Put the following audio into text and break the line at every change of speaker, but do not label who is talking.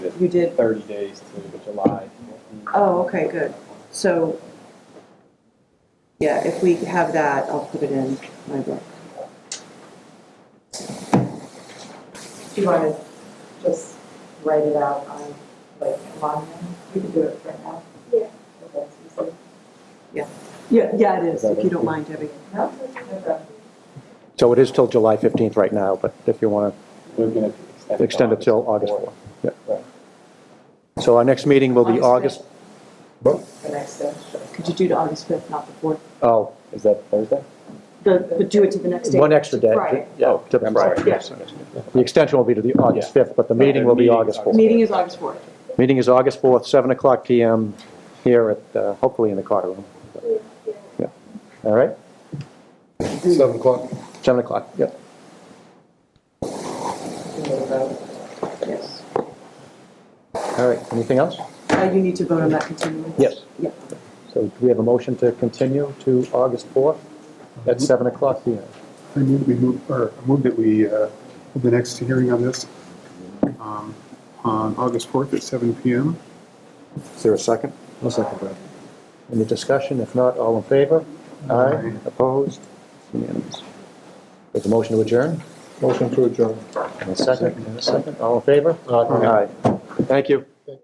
You did,
thirty days to July.
oh, okay, good. So, yeah, if we have that, I'll put it in my book.
Do you want to just write it out on, like, line? You can do it right now.
Yeah.
If that's easy.
Yeah, yeah, it is, if you don't mind, Debbie.
No, no problem.
So it is till July 15th right now, but if you want
We're gonna
to extend it till August 4th.
Right.
Yeah. So our next meeting will be August,
August The next day.
Could you do to August 5th, not the 4th?
oh,
Is that Thursday?
The, but do it to the next day.
one extra day.
Friday.
Yeah, to the
I'm
Friday.
sorry.
Yeah.
The extension will be to the August 5th, but the meeting will be
Meeting's
August
August
4th.
Meeting is August 4th.
Meeting is August 4th, 7 o'clock PM here at, uh, hopefully in the Carter Room.
Yeah, yeah.
All right?
Seven o'clock.
7 o'clock, yep.
Yes.
All right, anything else?
Uh, You need to vote on that continuance?
Yes.
Yeah.
So do we have a motion to continue to August 4th at
Mm-hmm.
7 o'clock PM?
I move we move, or I move that we, uh, hold the next hearing on this, um, on August fourth at seven PM.
Is there a second? No second, Brad. Any discussion? If not, all in favor? Aye.
Aye.
Opposed? Unanimous. With a motion to adjourn?
Motion to adjourn.
And a second? And a second? All in favor? Aye. Thank you.